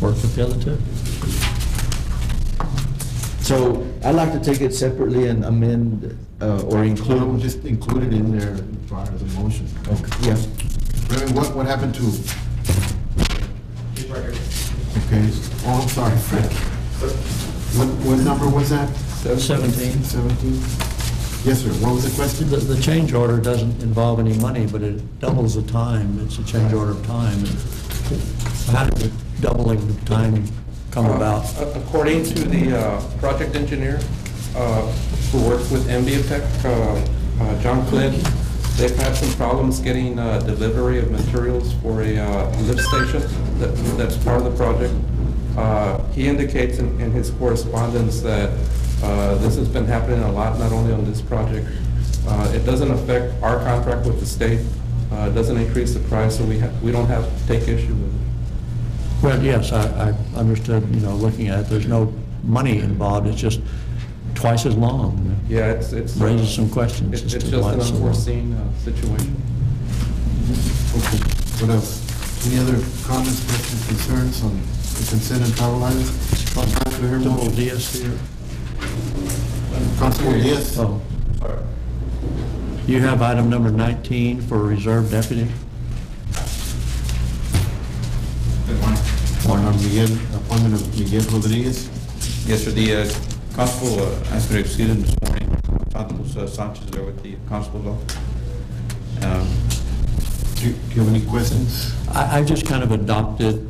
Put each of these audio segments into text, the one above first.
work with the other two. So I'd like to take it separately and amend uh, or Well, include. Just include it in there prior to the motion. Yeah, I mean, what, what happened to, He's right here. okay, oh, I'm sorry, Frank. What, what number was that? Seventeen. Seventeen? Yes, sir, what was the question? The, the change order doesn't involve any money, but it doubles the time. It's a change order of time. How did the doubling of time come about? Uh, According to the uh, project engineer uh, who worked with MBTech, uh, uh, John Clint, they've had some problems getting uh, delivery of materials for a uh, lift station that- that's part of the project. Uh, He indicates in in his correspondence that uh, this has been happening a lot, not only on this project. Uh, It doesn't affect our contract with the state, uh, it doesn't increase the price, so we ha- we don't have to take issue with it. Well, yes, I, I understood, you know, looking at it, there's no money involved. It's just twice as long. Yeah, it's, it's. uh, Raises some questions It's as it's to just why an it's so long. unforeseen uh, situation. Okay, what else? Any other comments, questions, concerns on the consent and travel items? Councilman Herb, Double DS here. Councilman Diaz? Oh. You have item number 19 for reserve deputy? On Miguel, appointment of Miguel Rodriguez? Yes, sir, the uh, constable uh, asked me to excuse him this morning. Constable uh, Sanchez there with the constable's office. Um, Do you do you have any questions? I, I just kind of adopted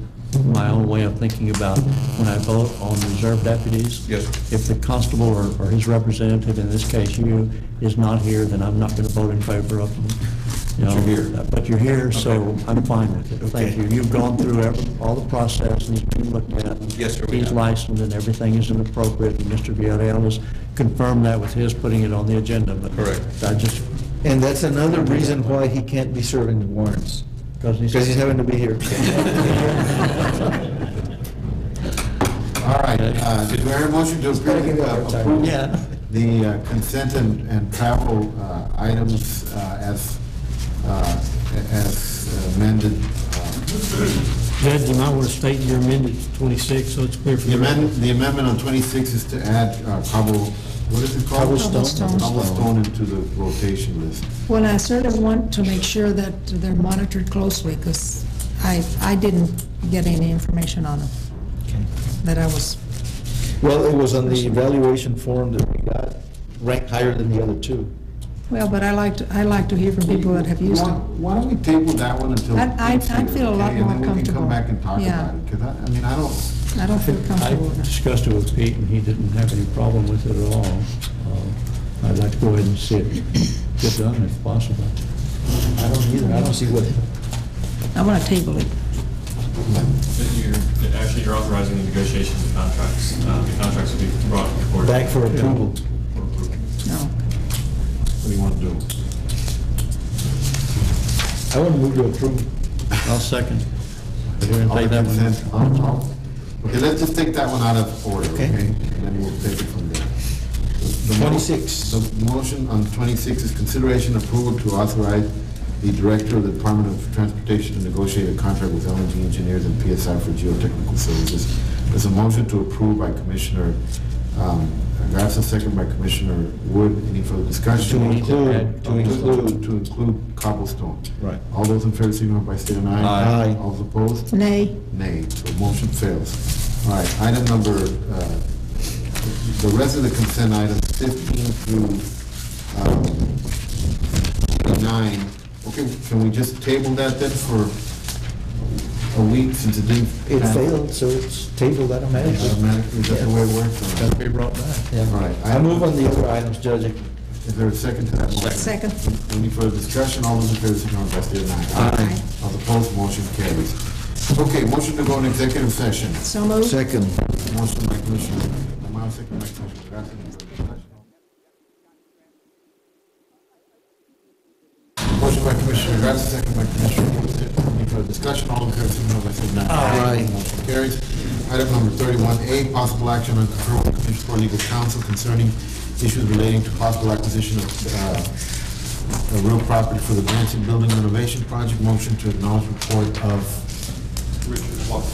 my own way of thinking about when I vote on reserve deputies. Yes. If the constable or, or his representative, in this case you, is not here, then I'm not gonna vote in favor of them. You know, uh, But you're here. But you're here, so Okay. I'm fine with it. Thank you. Okay. You've gone through every- all the process and he's been looked at. Yes, sir, we He's have. licensed and everything is appropriate, and Mr. Villarreal has confirmed that with his putting it on the agenda, but. Correct. I just, and that's another reason why he can't be serving the warrants, because he's. because he's having to be here. All right, uh, do I hear a motion to approve uh, approve Yeah. the uh, consent and, and travel uh, items uh, as, uh, as amended? uh, Judge, you might want to state your amended 26, so it's clear for The the record. amendment, the amendment on 26 is to add uh, cobble, what is it called? Cobblestone. Cobblestone into the rotation list. Well, I sort of want to make sure that they're monitored closely, because I, I didn't get any information on them that I was, Well, it was on the evaluation form that we got, ranked higher than the other two. well, but I like to, I like to hear from people that have used Why- them. Why don't we table that one until? I- I- I feel a lot Okay, and then we more can comfortable. come back and talk Yeah. about it, because I, I mean, I don't, I don't feel I comfortable with them. discussed it with Pete, and he didn't have any problem with it at all. Uh, I'd like to go ahead and see it get done if possible. I don't either, I don't see what, I want to table it. Then you're, actually, you're authorizing the negotiations of contracts. Uh, The contracts will be brought before. back for approval. for approval. No. what do you want to do? I want to move to approve. I'll second. We're gonna All the take that one. consent, all- all- Okay, let's just take that one out of order, okay? Okay. And then we'll take it from there. The mo- 26. The motion on 26 is consideration approval to authorize the director of the Department of Transportation to negotiate a contract with LNG Engineers and PSI for geotechnical services. There's a motion to approve by Commissioner um, Garza, second by Commissioner Wood. Any further discussion? To include- to Oh, include. To include cobblestone. Right. All those in favor, signify by state and I. Aye. Aye. All those opposed? Nay, Nay, so motion fails. All right, item number, uh, the rest of the consent items, 15 through um, 9. Okay, can we just table that then for a week since it didn't? It pass? failed, so it's tabled automatically. Automatically, is that the way it works? All That'll right. be brought back. All right, I move on the other items, Judge. Is there a second to that motion? second. Any further discussion? All those in favor, signify by state and I. Aye. All opposed, motion carries. Okay, motion to go in executive session. So moved. Second. Motion by Commissioner Tamayo, second by Commissioner Garcia, any further discussion? Motion by Commissioner Garcia, second by Commissioner Wood, any further discussion, all in favor, signify by saying aye. Aye. Motion carries. Item number thirty-one A, possible action on referral to Commission for Legal Counsel concerning issues relating to possible acquisition of, uh, of real property for the Branson Building Renovation Project, motion to acknowledge report of Richard Walker.